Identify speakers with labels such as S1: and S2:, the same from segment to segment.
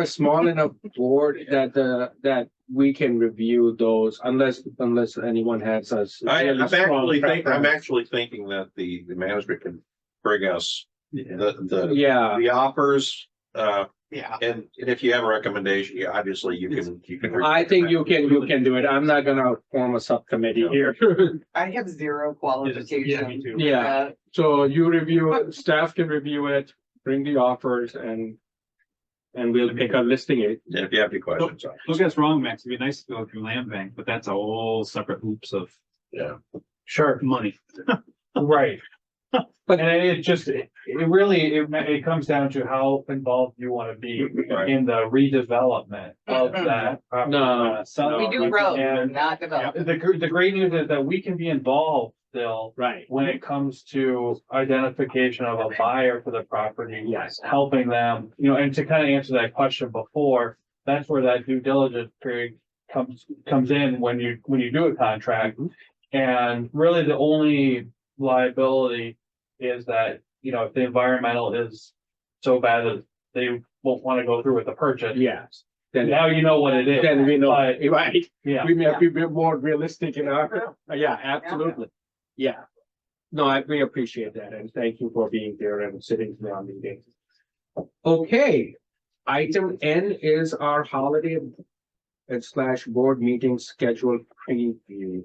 S1: a small enough board that, uh, that we can review those unless, unless anyone has us.
S2: I, I'm actually think, I'm actually thinking that the, the management can bring us the, the,
S1: Yeah,
S2: the offers. Uh,
S3: Yeah.
S2: and, and if you have a recommendation, yeah, obviously you can, you can.
S1: I think you can, you can do it. I'm not gonna form a subcommittee here.
S3: I have zero
S4: Yeah, me
S3: qualification.
S4: too.
S1: Yeah,
S3: Uh,
S1: so you review, it, staff can review it, bring the offers and, and we'll pick a listing it.
S2: And If you have any questions. uh,
S4: Don't get us wrong, Max, it'd be nice to go through land bank, but that's a whole separate hoops of
S1: Sure,
S4: money.
S5: Right.
S1: But-
S5: But and it just, it it really, it ma- it comes down to how involved you wanna be
S2: Right.
S5: in the redevelopment of
S4: Mm-hmm.
S5: that. property.
S1: No,
S5: Uh, some-
S3: We do road,
S5: And
S3: not
S5: yeah,
S3: develop.
S5: the gr- the great news is that we can be involved still
S1: right.
S5: when it comes to identification of a buyer for the property.
S1: Yes.
S5: Helping them, you know, and to kind of answer that question before, that's where that due diligence period comes, comes in when you, when you do a contract.
S2: Mm-hmm.
S5: And really the only liability is that, you know, if the environmental is so bad that they won't want to go through with the purchase.
S1: Yes, then,
S5: Now you know what it is.
S1: then we know,
S5: But-
S1: right?
S5: Yeah.
S1: We may be a bit more realistic in our, Uh, Yeah, absolutely. Yeah. No, I, we appreciate that and thank you for being there and sitting through our meeting. Okay, item N is our holiday and slash board meeting schedule preview.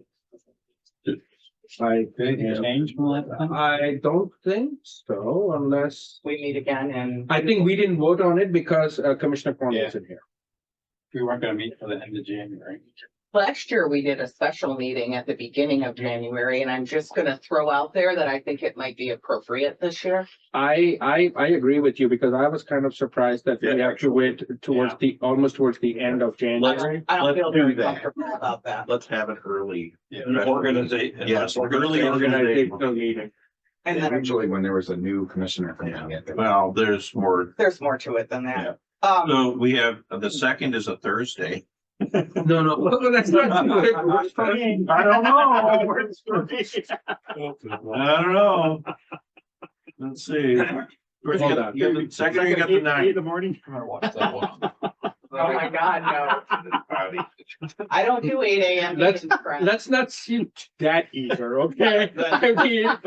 S1: I,
S4: Change from land bank?
S1: I don't think so unless,
S3: We meet again and.
S1: I think we didn't vote on it because uh, Commissioner Corn was in here.
S4: We weren't gonna meet for the end of January.
S3: Last year, we did a special meeting at the beginning of January, and I'm just gonna throw out there that I think it might be appropriate this year.
S1: I, I, I agree with you because I was kind of surprised that we
S2: Yeah.
S1: have to wait towards the, almost towards the end of
S3: I
S1: January.
S3: don't I don't
S2: Let's
S3: feel
S2: do
S3: very
S2: that.
S3: comfortable about that.
S2: Let's have it early.
S4: Yeah.
S2: Organization. Yes, early organization.
S1: Organizational meeting.
S3: And then
S6: Usually when there was a new commissioner coming in.
S2: Well, there's more.
S3: there's more to it than that. Um,
S2: So we have, the second is a Thursday.
S1: No, no, well, that's not.
S2: I don't know. I don't know. Let's see. First, you got- you got the Second, you got the ninth.
S4: the morning. Uh,
S5: I'm gonna watch that one.
S3: oh my God, no. I don't do eight AM.
S1: Let's-
S3: meetings, Brad.
S1: Let's not seem that eager, okay? I mean,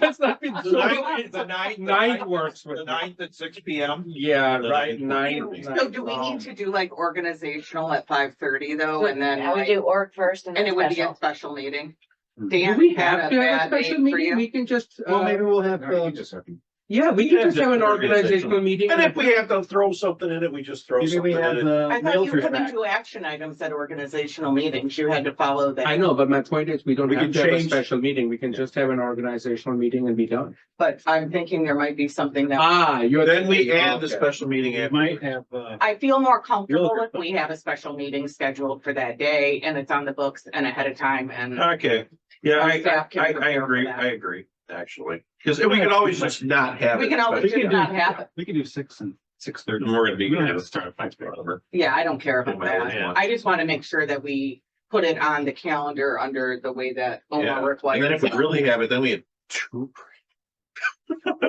S1: let's not be.
S2: The ninth- the ninth-
S1: Ninth works
S2: The
S1: with me.
S2: ninth at six P M.
S1: Yeah, right,
S2: right,
S1: nine.
S2: nine-
S3: So do we need to do like organizational at five thirty though, and then
S7: I would
S3: like-
S7: do org first and
S3: and
S7: then
S3: it would be a
S7: special.
S3: special meeting?
S1: Do
S3: Dan
S1: we
S3: had
S1: have
S3: a
S1: to have a
S3: bad day
S1: special
S3: for
S1: meeting?
S3: you.
S1: We can just,
S6: Well,
S1: uh,
S6: maybe we'll have, No, uh, you just have to-
S1: yeah, we
S2: Yeah,
S1: can just
S2: just
S1: have an
S2: organizational.
S1: organizational meeting.
S2: And if we have to throw something in it, we just throw
S6: maybe
S2: something
S6: we
S2: in
S6: have
S2: it.
S4: uh,
S6: the
S3: I thought you
S6: realtors
S3: couldn't
S6: back.
S3: do action items at organizational meetings. You had to follow that.
S1: I know, but my point is, we don't
S2: We
S1: have
S2: can
S1: to have a
S2: change-
S1: special meeting. We can just have an organizational meeting and be done.
S3: But I'm thinking there might be something that
S1: Ah, you're.
S2: Then we add the
S1: Okay.
S2: special meeting.
S4: It
S2: after.
S4: might have, uh,
S3: I feel more comfortable
S4: looking-
S3: if we have a special meeting scheduled for that day and it's on the books and ahead of time and.
S2: Okay, yeah,
S3: Our
S2: Uh, I,
S3: staff can
S2: I, I
S3: prepare for
S2: agree,
S3: that.
S2: I agree, actually, because we can always just not have it.
S3: We can always
S2: but-
S3: just not have it.
S4: we could do six and six thirty.
S2: We're gonna be-
S4: We don't have to start at five thirty.
S3: Yeah, I don't care about
S2: Well, yeah.
S3: that. I just want to make sure that we put it on the calendar under the way that
S2: Yeah.
S3: OMA
S2: And then if
S3: requires.
S2: we really have it, then we have two.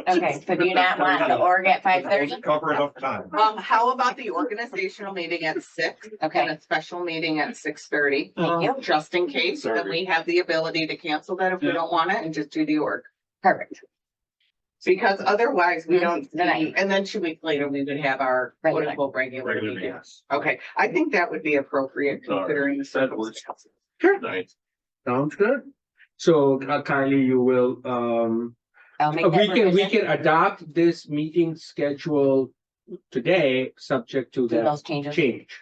S7: Okay, so do you not want the org at five thirty?
S2: Cover enough time.
S3: Um, how about the organizational meeting at six and
S7: Okay,
S3: a special meeting at six thirty?
S7: thank you.
S3: Just in case, then
S2: Sorry.
S3: we have the ability to cancel that if we
S4: Yeah.
S3: don't want it and just do the org.
S7: Perfect.
S3: Because otherwise we
S7: Mhm.
S3: don't,
S7: Then I-
S3: see- and then two weeks later, we would have our quote
S7: Regular.
S3: unquote regular
S2: Regular
S3: meeting.
S2: meetings.
S3: Okay, I think that would be appropriate
S2: Sorry.
S3: considering the
S2: That works.
S3: circumstances.
S2: Nice.
S1: Sounds good. So uh, Kylie, you will, um,
S7: I'll make
S1: Uh, We
S7: that
S1: can, we
S7: revision.
S1: can adopt this meeting schedule today, subject to
S7: Do
S1: that
S7: those changes.
S1: change.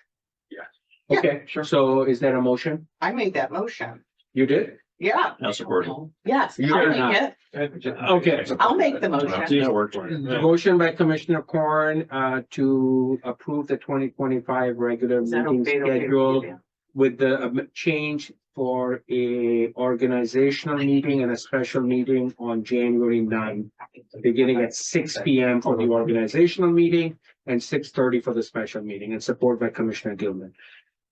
S2: Yes.
S1: Okay, so is that a motion?
S3: I made that motion.
S1: You did?
S3: Yeah.
S2: I'll support it.
S3: Yes,
S1: You
S3: I'll
S1: are
S3: make
S1: not.
S3: it.
S4: Uh,
S1: Okay.
S3: I'll make the motion.
S2: That worked.
S1: The motion by Commissioner Corn uh to approve the twenty twenty-five regular
S3: Is that
S1: meeting
S3: okay to
S1: schedule
S3: do?
S1: with the um, change for a organizational meeting and a special meeting on January 9th, beginning at six P M for the organizational meeting and six thirty for the special meeting and support by Commissioner Gilman.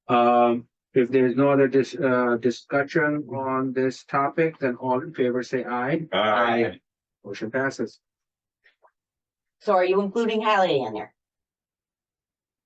S1: Um, if there is no other dis- uh, discussion on this topic, then all in favor say aye.
S2: Aye.
S1: Motion passes.
S7: So are you including holiday in there?